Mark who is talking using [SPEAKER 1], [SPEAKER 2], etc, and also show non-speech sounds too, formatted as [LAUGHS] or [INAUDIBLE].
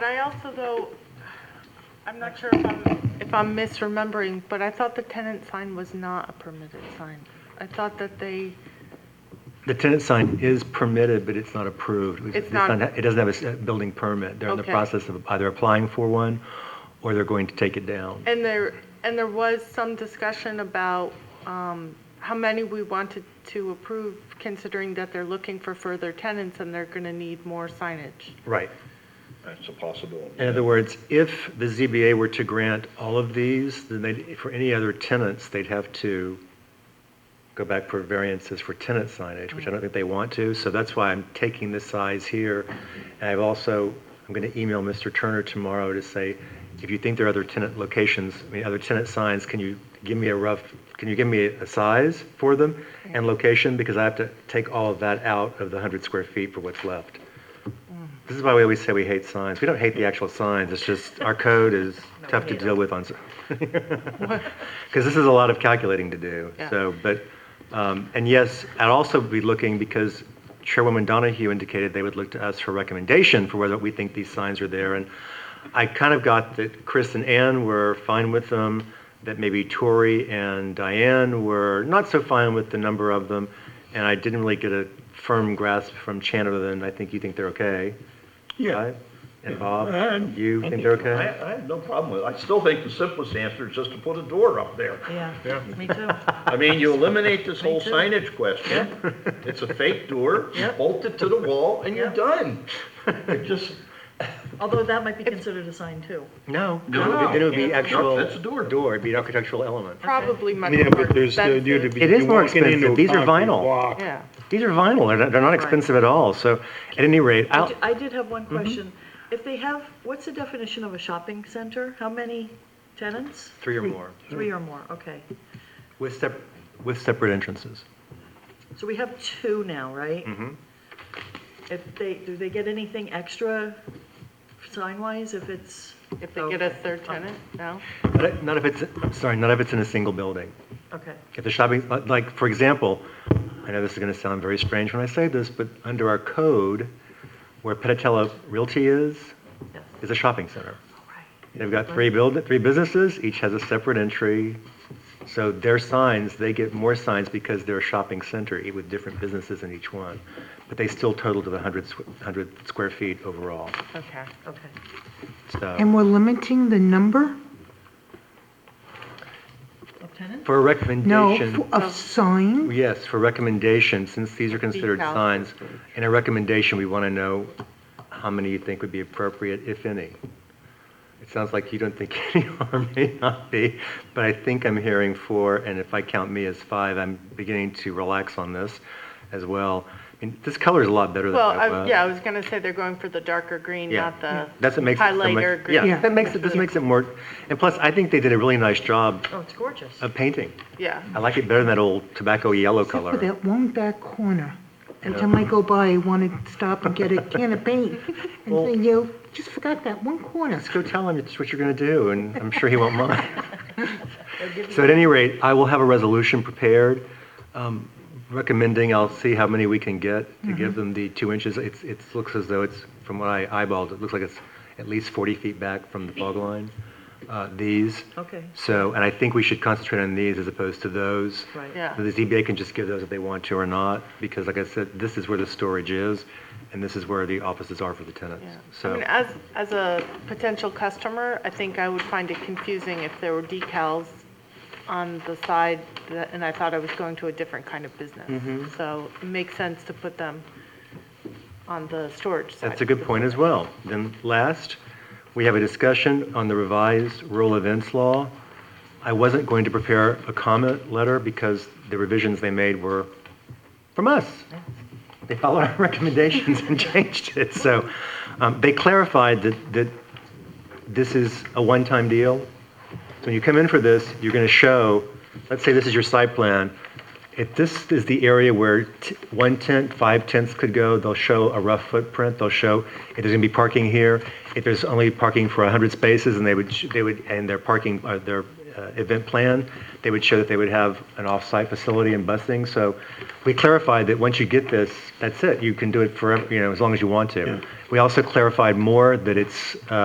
[SPEAKER 1] But I also, though, I'm not sure if I'm, if I'm misremembering, but I thought the tenant sign was not a permitted sign. I thought that they,
[SPEAKER 2] The tenant sign is permitted, but it's not approved.
[SPEAKER 1] It's not-
[SPEAKER 2] It doesn't have a s- building permit. They're in the
[SPEAKER 1] Okay.
[SPEAKER 2] process of either applying for one, or they're going to take it down.
[SPEAKER 1] and there, and there was some discussion about um, how many we wanted to approve, considering that they're looking for further tenants and they're going to need more signage.
[SPEAKER 2] Right.
[SPEAKER 3] That's a possibility.
[SPEAKER 2] In other words, if the ZBA were to grant all of these, then they, for any other tenants, they'd have to go back for variances for tenant signage, which I don't think they want to, so that's why I'm taking this size here. And I've also, I'm going to email Mr. Turner tomorrow to say, if you think there are other tenant locations, I mean, other tenant signs, can you give me a rough, can you give me a size for them and location, because I have to take all of that out of the 100 square feet for what's left. This is why we always say we hate signs. We don't hate the actual signs, it's just our code is tough to deal with on, because this is a lot of calculating to do.
[SPEAKER 1] Yeah.
[SPEAKER 2] So, but, um, and yes, I'd also be looking, because Chairwoman Donahue indicated they would look to us for recommendation for whether we think these signs are there. And I kind of got that Chris and Ann were fine with them, that maybe Tori and Diane were not so fine with the number of them. And I didn't really get a firm grasp from Chan other than, I think you think they're okay.
[SPEAKER 3] Yeah.
[SPEAKER 2] Right? And Bob,
[SPEAKER 3] And-
[SPEAKER 2] you think they're okay?
[SPEAKER 3] I, I have no problem with it. I still think the simplest answer is just to put a door up there.
[SPEAKER 4] Yeah, me too.
[SPEAKER 3] I mean, you
[SPEAKER 2] [LAUGHS]
[SPEAKER 3] eliminate this whole
[SPEAKER 4] too.
[SPEAKER 3] signage question. It's a fake door, you bolt it to the wall, and
[SPEAKER 2] [LAUGHS]
[SPEAKER 3] you're done. It just,
[SPEAKER 4] Although that might be considered a sign too.
[SPEAKER 2] No,
[SPEAKER 3] No.
[SPEAKER 2] no, then it would be
[SPEAKER 3] No,
[SPEAKER 2] actual.
[SPEAKER 3] that's a door.
[SPEAKER 2] Door, it'd be an architectural element.
[SPEAKER 1] Probably
[SPEAKER 5] I
[SPEAKER 1] much
[SPEAKER 5] mean,
[SPEAKER 1] more
[SPEAKER 5] yeah, but there's, uh,
[SPEAKER 1] expensive.
[SPEAKER 5] due to be.
[SPEAKER 2] It is
[SPEAKER 5] you're
[SPEAKER 2] more
[SPEAKER 5] walking into
[SPEAKER 2] expensive.
[SPEAKER 5] a
[SPEAKER 2] These are
[SPEAKER 5] concrete
[SPEAKER 2] vinyl.
[SPEAKER 5] block.
[SPEAKER 1] Yeah,
[SPEAKER 2] These are vinyl, they're not, they're not expensive at all, so at any rate,
[SPEAKER 4] I
[SPEAKER 2] I'll,
[SPEAKER 4] d- I did have one question. If they have, what's the definition of a shopping center? How many tenants?
[SPEAKER 2] three or more,
[SPEAKER 4] Three or more, okay.
[SPEAKER 2] with sep, with separate entrances.
[SPEAKER 4] So we have two now, right?
[SPEAKER 2] Mhm.
[SPEAKER 4] If they, do they get anything extra sign-wise if it's?
[SPEAKER 1] if they get a third tenant, no?
[SPEAKER 2] But Not if it's, I'm sorry, not if it's in a single building.
[SPEAKER 4] Okay,
[SPEAKER 2] If the shopping, like- like, for example, I know this is going to sound very strange when I say this, but under our code, where Petitella Realty is,
[SPEAKER 4] yes,
[SPEAKER 2] is a shopping center.
[SPEAKER 4] all right.
[SPEAKER 2] They've got three build, three businesses, each has a separate entry. So their signs, they get more signs because they're a shopping center e- with different businesses in each one. But they still total to the 100, squ- 100 square feet overall,
[SPEAKER 1] Okay.
[SPEAKER 4] Okay.
[SPEAKER 2] so.
[SPEAKER 6] And we're limiting the number?
[SPEAKER 4] Of tenants?
[SPEAKER 2] For a
[SPEAKER 6] No,
[SPEAKER 2] recommendation,
[SPEAKER 6] f- of sign?
[SPEAKER 2] yes, for recommendation, since these are considered
[SPEAKER 1] Detail.
[SPEAKER 2] signs, in a recommendation, we want to know how many you think would be appropriate, if any. It sounds like you don't think [LAUGHS] any are, may not be, but I think I'm hearing four, and if I count me as five, I'm beginning to relax on this as well. I mean, this color is a lot better than
[SPEAKER 1] Well,
[SPEAKER 2] that.
[SPEAKER 1] I, yeah, I was going to say they're going for the darker green,
[SPEAKER 2] uh, Yeah.
[SPEAKER 1] not the
[SPEAKER 2] That's what makes it so much-
[SPEAKER 1] highlighter green.
[SPEAKER 2] Yeah,
[SPEAKER 6] Yeah.
[SPEAKER 2] that makes it, this makes it more, and plus, I think they did a really nice job
[SPEAKER 4] Oh, it's gorgeous.
[SPEAKER 2] of painting.
[SPEAKER 1] Yeah.
[SPEAKER 2] I like it better than that old tobacco yellow
[SPEAKER 6] Except
[SPEAKER 2] color.
[SPEAKER 6] for that one back corner. Every time I go by, I want to stop and get a can of paint. And
[SPEAKER 2] Well-
[SPEAKER 6] say, yo, just forgot that one corner.
[SPEAKER 2] Just go tell him it's what you're going to do, and I'm sure he won't
[SPEAKER 4] [LAUGHS]
[SPEAKER 2] mind.
[SPEAKER 4] They'll give you-
[SPEAKER 2] So at any rate, I will have a resolution prepared, um, recommending, I'll see how many we can get to give
[SPEAKER 4] Mm-hmm.
[SPEAKER 2] them the two inches. It's, it looks as though it's, from what I eyeballed, it looks like it's at least 40 feet back from the fog line, uh, these.
[SPEAKER 4] Okay,
[SPEAKER 2] So, and I think we should concentrate on these as opposed to those.
[SPEAKER 4] right.
[SPEAKER 1] Yeah.
[SPEAKER 2] The ZBA can just give those if they want to or not, because like I said, this is where the storage is, and this is where the offices are for the tenants.
[SPEAKER 1] Yeah. I
[SPEAKER 2] So,
[SPEAKER 1] mean, as, as a potential customer, I think I would find it confusing if there were decals on the side that, and I thought I was going to a different kind of
[SPEAKER 2] Mm-hmm.
[SPEAKER 1] business. So it makes sense to put them on the storage side.
[SPEAKER 2] that's a good point as well. Then last, we have a discussion on the revised rural events law. I wasn't going to prepare a comment letter because the revisions they made were from us. They followed our [LAUGHS] recommendations and changed it. So um, they clarified that, that this is a one-time deal. So when you come in for this, you're going to show, let's say this is your site plan. If this is the area where t- one tenth, five tenths could go, they'll show a rough footprint. They'll show if there's going to be parking here, if there's only parking for 100 spaces, and they would, sh- they would, and their parking, uh, their uh, event plan, they would show that they would have an off-site facility and busing. So we clarified that once you get this, that's it. You can do it forever, you know, as long as you want to. We also clarified more that it's, uh,